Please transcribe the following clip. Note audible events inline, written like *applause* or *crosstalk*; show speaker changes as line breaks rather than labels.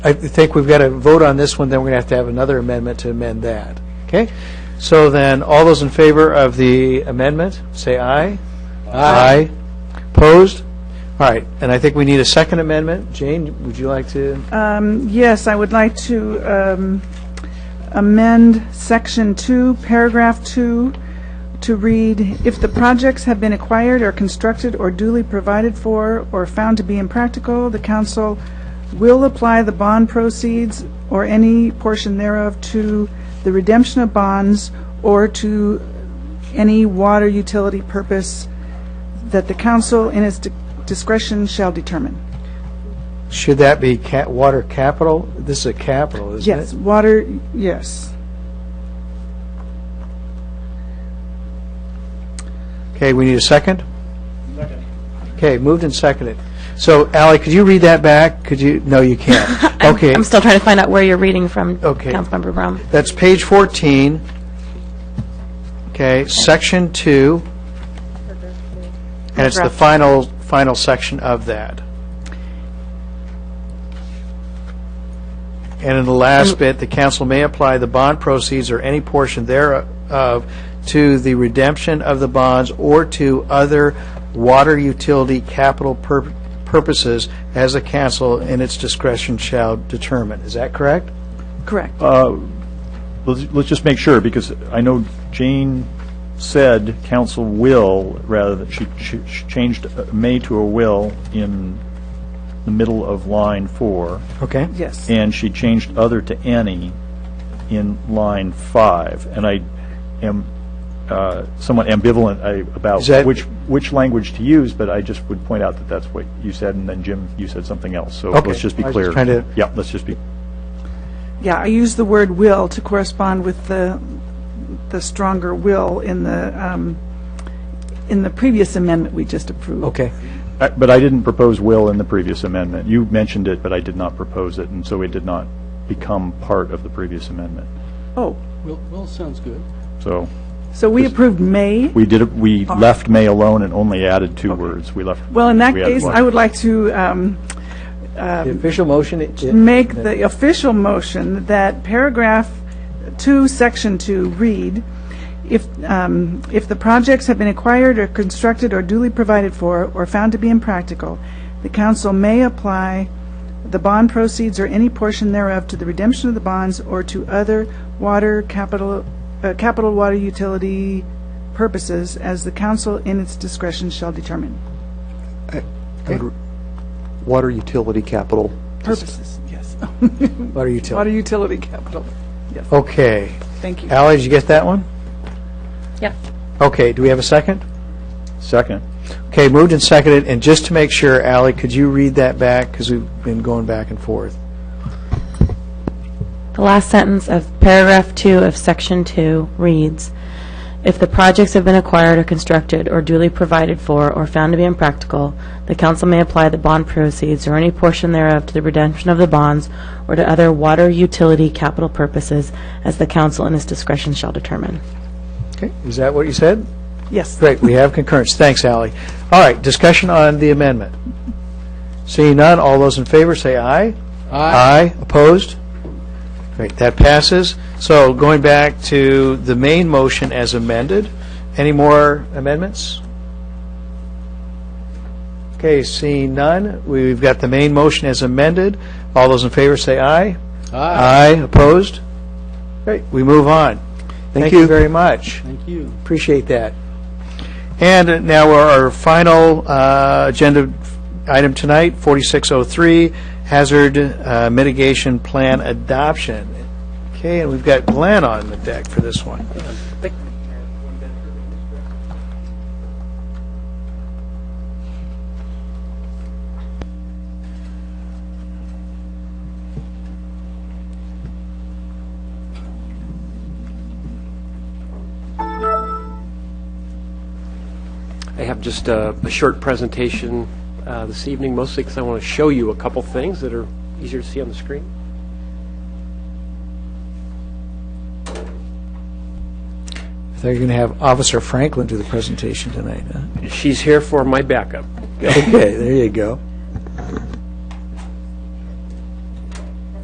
I think we've got to vote on this one, then we're going to have to have another amendment to amend that. Okay? So then, all those in favor of the amendment, say aye. Aye. Opposed? All right, and I think we need a second amendment. Jane, would you like to?
Um, Yes, I would like to um, amend Section 2, Paragraph 2, to read, "If the projects have been acquired or constructed or duly provided for or found to be impractical, the council will apply the bond proceeds or any portion thereof to the redemption of bonds or to any water utility purpose that the council in its discretion shall determine."
Should that be ca- water capital? This is a capital, isn't it?
Yes, water, yes.
Okay, we need a second? Second. Okay, moved and seconded. So, Ally, could you read that back? Could you, no, you can't. Okay,
I'm still trying to find out where you're reading from,
Okay.
Councilmember Brown.
that's page 14. Okay, section 2. And it's the
Paragraph.
final, final section of that. And in the last bit, the council may apply the bond proceeds or any portion thereof to the redemption of the bonds or to other water utility capital pur- purposes as the council in its discretion shall determine. Is that correct?
Correct.
Uh, Let's, let's just make sure, because I know Jane said council will, rather than, she, she she changed uh, may to a will in the middle of line four,
Okay?
Yes.
and she changed other to any in line five, and I am uh, somewhat ambivalent I- about
Is that-
which, which language to use, but I just would point out that that's what you said, and then Jim, you said something else, so
Okay.
let's just be
I was
clear.
just trying to-
Yeah, let's just be,
Yeah, I use the word "will" to correspond with the, the stronger "will" in the, um, in the previous amendment we just approved.
Okay.
I- But I didn't propose will in the previous amendment. You mentioned it, but I did not propose it, and so it did not become part of the previous amendment.
Oh,
Well, well, sounds good.
So
so we approved "may"?
we did, we left may alone and only added two words. We left.
Well, in that
we added
case,
one.
I would like to um,
The official motion? it- it-
make the official motion that paragraph 2, section 2 read, if, um, if the projects have been acquired or constructed or duly provided for or found to be impractical, the council may apply the bond proceeds or any portion thereof to the redemption of the bonds or to other water capital, uh, capital water utility purposes as the council in its discretion shall determine.
water utility capital.
Purposes, yes.
Water
Water
utility.
utility capital,
Okay.
thank you.
Ally, did you get that one?
Yep.
Okay, do we have a second?
Second.
Okay, moved and seconded, and just to make sure, Ally, could you read that back, because we've been going back and forth?
The last sentence of paragraph two of section two reads, "If the projects have been acquired or constructed or duly provided for or found to be impractical, the council may apply the bond proceeds or any portion thereof to the redemption of the bonds or to other water utility capital purposes as the council in its discretion shall determine."
Okay, is that what you said?
Yes.
Great, we have concurrence, thanks, Ally. All right, discussion on the amendment. Seeing none, all those in favor say aye. Aye. opposed? Great, that passes. So going back to the main motion as amended, any more amendments? Okay, seeing none, we've got the main motion as amended. All those in favor say aye.
Ah,
Aye. opposed? Great, we move on. Thank you
you.
very much.
Thank you.
Appreciate that. And now our final uh, agenda item tonight, 4603, Hazard uh, Mitigation Plan Adoption. Okay, and we've got Glenn on the deck for this one.
I have just a, a short presentation uh, this evening, mostly because I want to show you a couple things that are easier to see on the screen.
I thought you were going to have Officer Franklin do the presentation tonight, huh?
She's here for my backup.
*laughs* Okay, there you go.